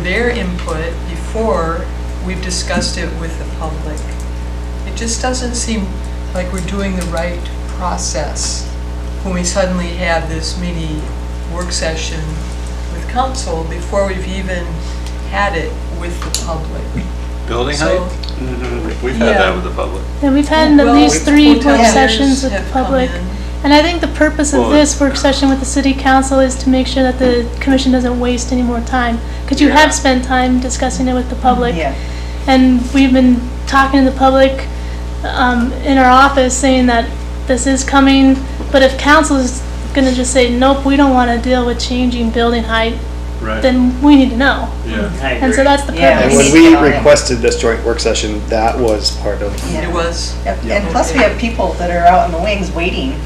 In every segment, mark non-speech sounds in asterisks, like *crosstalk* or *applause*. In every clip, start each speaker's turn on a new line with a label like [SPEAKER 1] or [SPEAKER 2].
[SPEAKER 1] their input before we've discussed it with the public. It just doesn't seem like we're doing the right process when we suddenly have this mini work session with council before we've even had it with the public.
[SPEAKER 2] Building
[SPEAKER 1] So-
[SPEAKER 2] height? Mm-hmm. We've had
[SPEAKER 1] Yeah.
[SPEAKER 2] that with the public.
[SPEAKER 3] Yeah, we've had at
[SPEAKER 1] Well,
[SPEAKER 3] least three work
[SPEAKER 1] hoteliers
[SPEAKER 3] sessions with
[SPEAKER 1] have
[SPEAKER 3] the
[SPEAKER 1] come
[SPEAKER 3] public.
[SPEAKER 1] in.
[SPEAKER 3] And I think the purpose of
[SPEAKER 2] Well,
[SPEAKER 3] this work session with the city council is to make sure that the commission doesn't waste any more time. Because you
[SPEAKER 2] Yeah.
[SPEAKER 3] have spent time discussing it with the public.
[SPEAKER 4] Yeah.
[SPEAKER 3] And we've been talking to the public um, in our office saying that this is coming. But if council is going to just say, nope, we don't want to deal with changing building height,
[SPEAKER 2] Right.
[SPEAKER 3] then we need to know.
[SPEAKER 2] Yeah.
[SPEAKER 5] I
[SPEAKER 3] And so
[SPEAKER 5] agree.
[SPEAKER 3] that's the
[SPEAKER 4] Yeah,
[SPEAKER 6] And
[SPEAKER 4] we
[SPEAKER 3] purpose.
[SPEAKER 4] need
[SPEAKER 6] when
[SPEAKER 4] to
[SPEAKER 6] we
[SPEAKER 4] get on it.
[SPEAKER 6] requested this joint work session, that was part of,
[SPEAKER 4] Yeah.
[SPEAKER 1] It was,
[SPEAKER 4] Yep,
[SPEAKER 6] Yeah.
[SPEAKER 4] And plus, we have people that are out in the wings waiting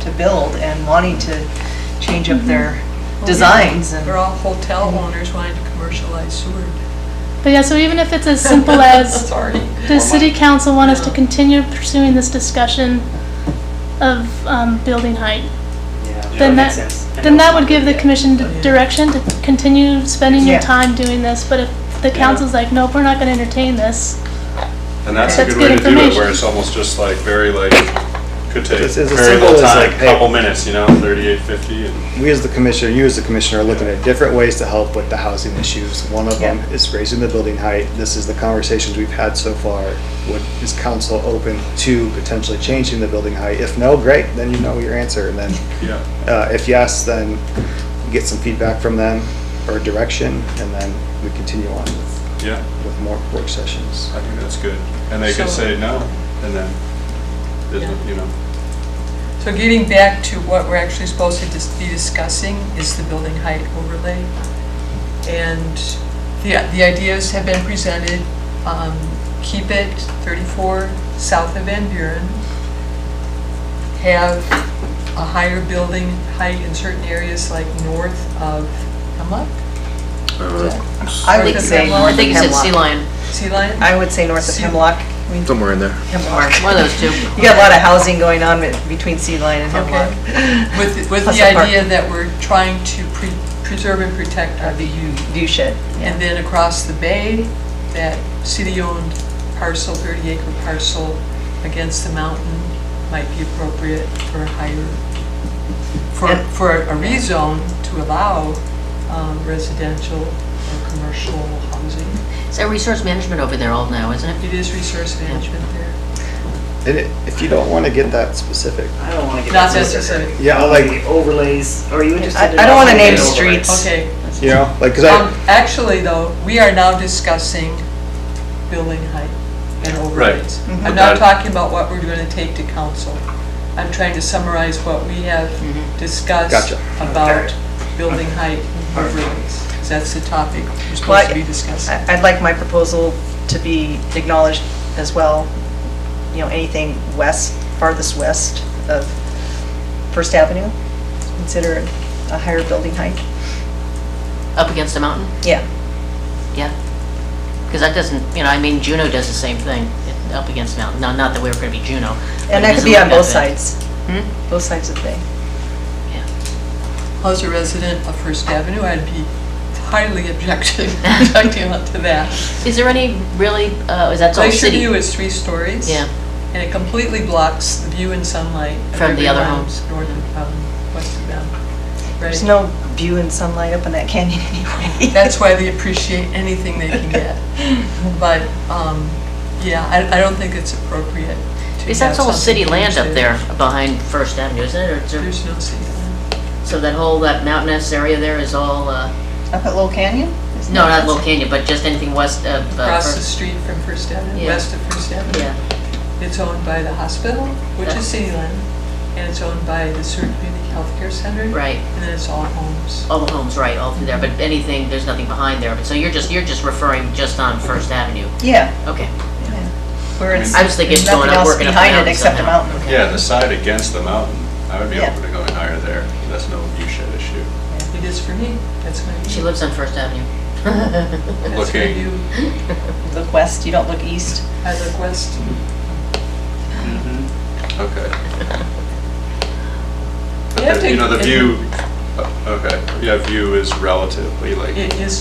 [SPEAKER 4] to build and wanting to change
[SPEAKER 7] Mm-hmm.
[SPEAKER 4] up their designs and.
[SPEAKER 1] they're all hotel owners wanting to commercialize Seward.
[SPEAKER 3] But yeah, so even if it's as
[SPEAKER 1] *laughs*
[SPEAKER 3] simple as
[SPEAKER 1] Sorry.
[SPEAKER 3] Does city council want us to
[SPEAKER 1] Yeah.
[SPEAKER 3] continue pursuing this discussion of um, building height?
[SPEAKER 5] Yeah,
[SPEAKER 3] Then
[SPEAKER 5] makes
[SPEAKER 3] that-
[SPEAKER 5] sense. I
[SPEAKER 3] Then
[SPEAKER 5] know.
[SPEAKER 3] that would give the commission d- direction to continue spending your
[SPEAKER 4] Yeah.
[SPEAKER 3] time doing this, but if the council's like, nope, we're not gonna entertain this,
[SPEAKER 2] And that's a
[SPEAKER 3] That's
[SPEAKER 2] good way to
[SPEAKER 3] good
[SPEAKER 2] do it, where
[SPEAKER 3] information.
[SPEAKER 2] it's almost just like very like, could take
[SPEAKER 6] It's- it's as
[SPEAKER 2] very
[SPEAKER 6] simple
[SPEAKER 2] little
[SPEAKER 6] as,
[SPEAKER 2] time,
[SPEAKER 6] like, hey-
[SPEAKER 2] couple minutes, you know, thirty-eight, fifty, and
[SPEAKER 6] we as the commissioner, you as the commissioner are looking at different ways to help with the housing issues. One of them
[SPEAKER 4] Yeah.
[SPEAKER 6] is raising the building height. This is the conversations we've had so far. Would, is council open to potentially changing the building height? If no, great, then you know your answer. And then,
[SPEAKER 2] yeah.
[SPEAKER 6] uh, if yes, then get some feedback from them or direction, and then we continue on with,
[SPEAKER 2] Yeah,
[SPEAKER 6] with more work sessions.
[SPEAKER 2] I think that's good. And they could
[SPEAKER 1] So-
[SPEAKER 2] say no, and then, there's no-
[SPEAKER 1] Yeah.
[SPEAKER 2] you know,
[SPEAKER 1] So getting back to what we're actually supposed to dis- be discussing is the building height overlay. And the, the ideas have been presented, um, keep it 34 south of Van Buren, have a higher building height in certain areas like north of Hemlock? Is that
[SPEAKER 6] Uh,
[SPEAKER 4] I would
[SPEAKER 1] North of
[SPEAKER 4] say
[SPEAKER 1] Hemlock?
[SPEAKER 4] north
[SPEAKER 7] I think you said
[SPEAKER 4] Hemlock.
[SPEAKER 7] sea lion,
[SPEAKER 1] Sea Lion?
[SPEAKER 4] I would say north of
[SPEAKER 1] See-
[SPEAKER 4] Hemlock.
[SPEAKER 8] Somewhere in there.
[SPEAKER 4] Hemlock.
[SPEAKER 7] one of those two.
[SPEAKER 4] You got a lot of housing going on with- between Sea Lion and
[SPEAKER 1] Okay.
[SPEAKER 4] Hemlock.
[SPEAKER 7] *laughs*
[SPEAKER 1] With, with
[SPEAKER 4] Plus
[SPEAKER 1] the
[SPEAKER 4] apartment.
[SPEAKER 1] idea that we're trying to pre- preserve and protect our
[SPEAKER 4] Uh, The U, U shed.
[SPEAKER 1] And then across the bay, that city-owned parcel, 30-acre parcel against the mountain might be appropriate for higher, for,
[SPEAKER 4] And-
[SPEAKER 1] for a rezone to allow um, residential or commercial housing.
[SPEAKER 7] Is that resource management over there all now, isn't it?
[SPEAKER 1] It is resource management there.
[SPEAKER 6] And it- if you don't want to get that specific,
[SPEAKER 5] I don't want to get.
[SPEAKER 1] Not
[SPEAKER 5] into it.
[SPEAKER 1] necessary.
[SPEAKER 6] Yeah, I like-
[SPEAKER 5] The Overlays, are you interested?
[SPEAKER 4] I-
[SPEAKER 5] in
[SPEAKER 4] I don't wanna name
[SPEAKER 5] overlays?
[SPEAKER 4] streets.
[SPEAKER 1] Okay.
[SPEAKER 6] you know, like, because
[SPEAKER 1] Um,
[SPEAKER 6] I,
[SPEAKER 1] Actually, though, we are now discussing building height and overlays.
[SPEAKER 4] Right.
[SPEAKER 1] I'm not talking about what we're going to take to council. I'm trying to summarize what we have
[SPEAKER 4] Mm-hmm.
[SPEAKER 1] discussed
[SPEAKER 6] Gotcha.
[SPEAKER 1] about building height and overlays. 'cause That's the topic we're
[SPEAKER 4] Well,
[SPEAKER 1] supposed to be discussing.
[SPEAKER 4] I- I'd like my proposal to be acknowledged as well, you know, anything west, farthest west of First Avenue, consider a higher building height.
[SPEAKER 7] Up against the mountain,
[SPEAKER 4] Yeah,
[SPEAKER 7] yeah. Because that doesn't, you know, I mean, Juno does the same thing, up against the mountain. No, not that we were going to be Juno. but
[SPEAKER 4] and
[SPEAKER 7] it
[SPEAKER 4] that could
[SPEAKER 7] doesn't
[SPEAKER 4] be
[SPEAKER 7] look
[SPEAKER 4] on
[SPEAKER 7] that
[SPEAKER 4] both
[SPEAKER 7] bad.
[SPEAKER 4] sides,
[SPEAKER 7] Hmm?
[SPEAKER 4] both sides of the thing.
[SPEAKER 1] As a resident of First Avenue, I'd be highly *laughs*
[SPEAKER 4] *laughs*
[SPEAKER 1] objecting, objecting to that.
[SPEAKER 7] Is there any really, uh, is that all
[SPEAKER 1] Glacier
[SPEAKER 7] city?
[SPEAKER 1] View is three stories.
[SPEAKER 7] Yeah.
[SPEAKER 1] And it completely blocks the view and sunlight. of
[SPEAKER 7] From the other
[SPEAKER 1] everyone
[SPEAKER 7] homes.
[SPEAKER 1] North of, um, west of them.
[SPEAKER 4] There's
[SPEAKER 1] Right.
[SPEAKER 4] no view and sunlight up in that canyon *laughs* anyway.
[SPEAKER 1] That's why they appreciate anything they can
[SPEAKER 4] *laughs*
[SPEAKER 1] get. But, um, yeah, I, I don't think it's appropriate to
[SPEAKER 7] Is
[SPEAKER 1] have
[SPEAKER 7] that all
[SPEAKER 1] something
[SPEAKER 7] city land up
[SPEAKER 1] posted.
[SPEAKER 7] there behind First Avenue, isn't it? Or is there-
[SPEAKER 1] There's no city land.
[SPEAKER 7] So that whole, that mountainous area there is all, uh,
[SPEAKER 4] Up at Little Canyon? Isn't
[SPEAKER 7] no,
[SPEAKER 4] that-
[SPEAKER 7] not Little Canyon, but just anything west of uh,
[SPEAKER 1] Across the
[SPEAKER 7] First.
[SPEAKER 1] street from First Avenue,
[SPEAKER 7] Yeah.
[SPEAKER 1] west of First Avenue.
[SPEAKER 7] Yeah.
[SPEAKER 1] It's owned by the hospital, which
[SPEAKER 7] Yeah.
[SPEAKER 1] is city land, and it's owned by the Surrey Community Healthcare Center.
[SPEAKER 7] Right.
[SPEAKER 1] And then it's all homes.
[SPEAKER 7] all the homes, right, all through there, but anything, there's nothing behind there, but so you're just, you're just referring just on First Avenue,
[SPEAKER 4] Yeah.
[SPEAKER 7] okay.
[SPEAKER 4] Where it's-
[SPEAKER 7] I was thinking it's going
[SPEAKER 4] nothing
[SPEAKER 7] up,
[SPEAKER 4] else
[SPEAKER 7] working up
[SPEAKER 4] behind
[SPEAKER 7] and
[SPEAKER 4] it
[SPEAKER 7] down
[SPEAKER 4] Except a
[SPEAKER 7] somehow.
[SPEAKER 4] mountain.
[SPEAKER 2] Yeah, the side against the mountain, I would be
[SPEAKER 4] Yeah.
[SPEAKER 2] open to going higher there. That's no view shed issue.
[SPEAKER 1] It is for me, that's my
[SPEAKER 7] She
[SPEAKER 1] view.
[SPEAKER 7] lives on First Avenue. *laughs*
[SPEAKER 1] That's my
[SPEAKER 2] Looking.
[SPEAKER 1] view.
[SPEAKER 4] Look west, you don't look east.
[SPEAKER 1] I look west.
[SPEAKER 2] Mm-hmm. Okay. But
[SPEAKER 1] You have
[SPEAKER 2] the- You
[SPEAKER 1] to-
[SPEAKER 2] uh, know, the view, okay, yeah, view is relatively like.
[SPEAKER 1] It is